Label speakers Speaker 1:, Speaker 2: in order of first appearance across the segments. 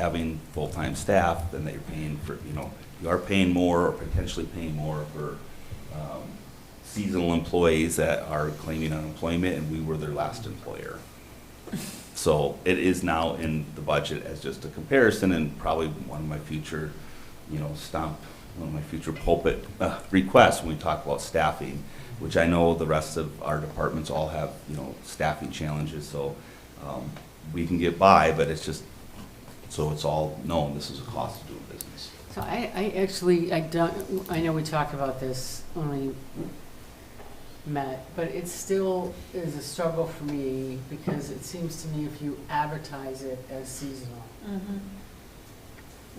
Speaker 1: having full-time staff, then they're paying for, you know, you are paying more or potentially paying more for um, seasonal employees that are claiming unemployment, and we were their last employer. So it is now in the budget as just a comparison and probably one of my future, you know, stomp, one of my future pulpit uh, requests when we talk about staffing, which I know the rest of our departments all have, you know, staffing challenges, so um, we can get by, but it's just, so it's all known, this is a cost of doing business.
Speaker 2: So I, I actually, I don't, I know we talked about this when we met, but it still is a struggle for me because it seems to me if you advertise it as seasonal,
Speaker 3: Mhm.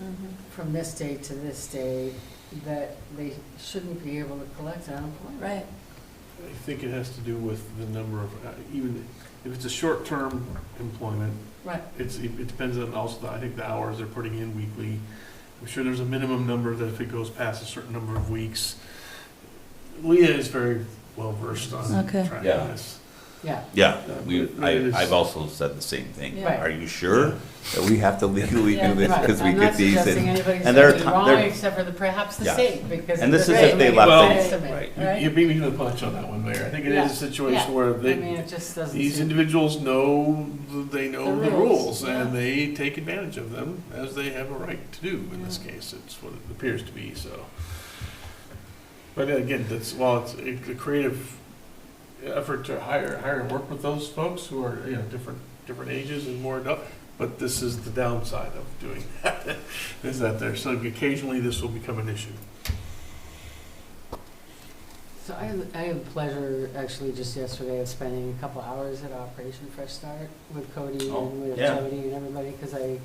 Speaker 3: Mhm.
Speaker 2: from this day to this day, that they shouldn't be able to collect unemployment.
Speaker 3: Right,
Speaker 4: I think it has to do with the number of, uh, even if it's a short-term employment,
Speaker 3: right.
Speaker 4: it's, it it depends on also, I think, the hours they're putting in weekly. I'm sure there's a minimum number that if it goes past a certain number of weeks. Leah is very well-versed on
Speaker 3: Okay.
Speaker 4: tracking
Speaker 1: Yeah.
Speaker 4: this.
Speaker 2: Yeah,
Speaker 1: Yeah, we,
Speaker 4: But
Speaker 1: I,
Speaker 4: it is-
Speaker 1: I've also said the same thing.
Speaker 3: Yeah.
Speaker 1: Are you sure that we have to legally do this
Speaker 2: right.
Speaker 1: because we
Speaker 2: I'm
Speaker 1: get
Speaker 2: not
Speaker 1: these
Speaker 2: suggesting
Speaker 1: in?
Speaker 2: anybody's
Speaker 1: and there are
Speaker 2: doing
Speaker 1: ti-
Speaker 2: wrong
Speaker 1: there-
Speaker 2: except for the, perhaps the
Speaker 1: Yeah.
Speaker 2: state because.
Speaker 1: And this
Speaker 2: it
Speaker 1: is
Speaker 2: doesn't
Speaker 1: if they
Speaker 2: make
Speaker 1: left
Speaker 2: sense
Speaker 1: it-
Speaker 2: to me.
Speaker 1: right.
Speaker 4: You-
Speaker 3: Right.
Speaker 4: You beat me to the punch on that one, Mayor. I think it
Speaker 2: Yeah.
Speaker 4: is a situation
Speaker 2: Yeah.
Speaker 4: where
Speaker 2: I mean,
Speaker 4: they,
Speaker 2: it just doesn't.
Speaker 4: these
Speaker 2: seem-
Speaker 4: individuals know, th- they know the
Speaker 2: The rules,
Speaker 4: rules, and
Speaker 3: yeah.
Speaker 4: they take advantage of them, as they have a right to do in this
Speaker 3: Yeah.
Speaker 4: case. It's what it appears to be, so. But again, that's, well, it's a a creative effort to hire, hire and work with those folks who are, you know, different, different ages and more adult. But this is the downside of doing that, is that there, so occasionally this will become an issue.
Speaker 2: So I, had- I had the pleasure, actually, just yesterday of spending a couple hours at Operation Fresh Start with Cody
Speaker 1: Oh,
Speaker 2: and with
Speaker 1: yeah.
Speaker 2: Jody and everybody, because I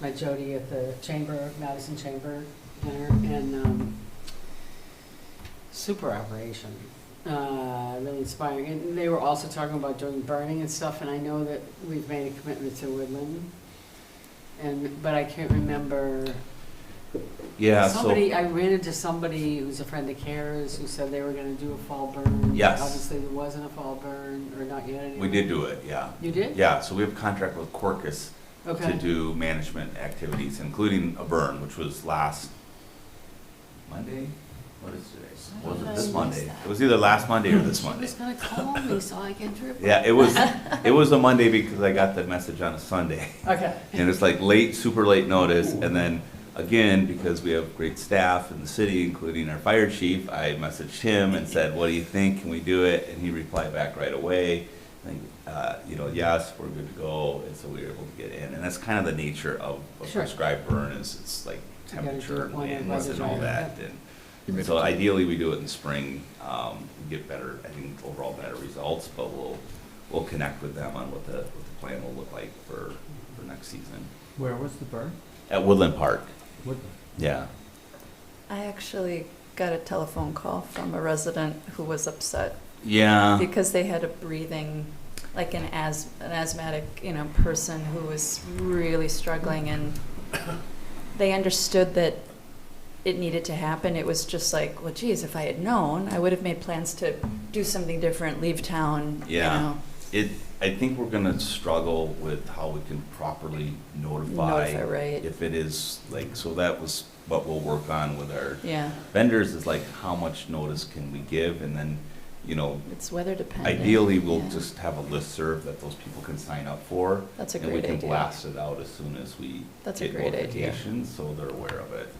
Speaker 2: met Jody at the chamber, Madison Chamber dinner, and, um, super operation, uh, really inspiring. And they were also talking about doing burning and stuff, and I know that we've made a commitment to Woodland. And, but I can't remember
Speaker 1: Yeah, so.
Speaker 2: Somebody, I ran into somebody who's a friend of Kara's who said they were gonna do a fall burn.
Speaker 1: Yes.
Speaker 2: Obviously, there wasn't a fall burn, or not yet anyway.
Speaker 1: We did do it, yeah.
Speaker 2: You did?
Speaker 1: Yeah, so we have a contract with Corcus to
Speaker 2: Okay.
Speaker 1: do management activities, including a burn, which was last Monday? What is
Speaker 3: I
Speaker 1: today?
Speaker 3: don't
Speaker 1: Was it
Speaker 3: know.
Speaker 1: this Monday? It was either last Monday or this
Speaker 3: She
Speaker 1: Monday.
Speaker 3: was gonna call me so I can drip.
Speaker 1: Yeah, it was, it was a Monday because I got the message on a Sunday.
Speaker 2: Okay,
Speaker 1: And it's like late, super late notice, and then, again, because we have great staff in the city, including our fire chief, I messaged him and said, what do you think, can we do it? And he replied back right away, and, uh, you know, yes, we're good to go, and so we were able to get in. And that's kind of the nature of a
Speaker 2: Sure.
Speaker 1: prescribed burn, is it's like
Speaker 2: You gotta do it
Speaker 1: temperature and
Speaker 2: when it
Speaker 1: winds and
Speaker 2: weather's
Speaker 1: all
Speaker 2: right,
Speaker 1: that, and so ideally, we do it in spring, um, and get better, I think, overall better results, but we'll, we'll connect with them on what the, what the plan will look like for, for next season.
Speaker 5: Where was the burn?
Speaker 1: At Woodland Park,
Speaker 5: What?
Speaker 1: yeah.
Speaker 3: I actually got a telephone call from a resident who was upset
Speaker 1: Uh-huh. Yeah.
Speaker 3: because they had a breathing, like an as, an asthmatic, you know, person who was really struggling and they understood that it needed to happen. It was just like, well, geez, if I had known, I would have made plans to do something different, leave town, you
Speaker 1: Yeah.
Speaker 3: know,
Speaker 1: It, I think we're gonna struggle with how we can properly
Speaker 3: notify,
Speaker 1: notify
Speaker 3: right?
Speaker 1: if it is, like, so that was what we'll work on with our
Speaker 3: Yeah,
Speaker 1: vendors is like, how much notice can we give? And then, you know,
Speaker 3: it's weather dependent.
Speaker 1: ideally, we'll
Speaker 3: Yeah.
Speaker 1: just have a listserv that those people can sign up for.
Speaker 3: That's a
Speaker 1: And we
Speaker 3: great
Speaker 1: can
Speaker 3: idea.
Speaker 1: blast it out as soon as we
Speaker 3: That's a
Speaker 1: get
Speaker 3: great idea.
Speaker 1: notifications, so they're aware of it.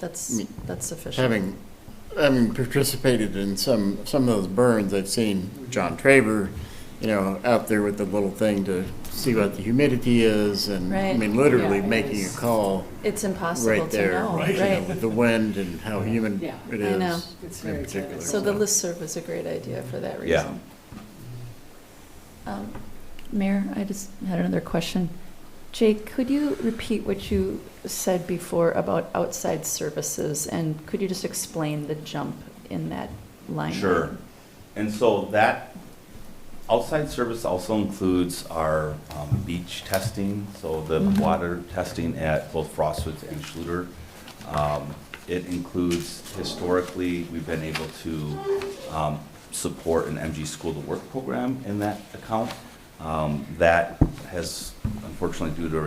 Speaker 3: That's, that's sufficient.
Speaker 6: Having, having participated in some, some of those burns, I've seen John Traver, you know, out there with the little thing to see what the humidity is and, I
Speaker 3: Right.
Speaker 6: mean, literally
Speaker 2: Yeah, it
Speaker 6: making a
Speaker 2: is
Speaker 6: call
Speaker 3: It's impossible
Speaker 6: right
Speaker 3: to
Speaker 6: there.
Speaker 3: know,
Speaker 6: you know,
Speaker 3: right?
Speaker 6: With the wind and how humid
Speaker 2: Yeah,
Speaker 6: it
Speaker 3: I know.
Speaker 6: is.
Speaker 2: it's
Speaker 6: In
Speaker 2: very
Speaker 6: particular.
Speaker 2: good.
Speaker 3: So the listserv was a great idea for that
Speaker 1: Yeah.
Speaker 3: reason. Um, Mayor, I just had another question. Jake, could you repeat what you said before about outside services? And could you just explain the jump in that line?
Speaker 1: Sure. And so that outside service also includes our um, beach testing, so the
Speaker 3: Mhm.
Speaker 1: water testing at both Frostwoods and Schluter. Um, It includes historically, we've been able to um, support an MG School to Work program in that account. Um, Um, That has unfortunately due to a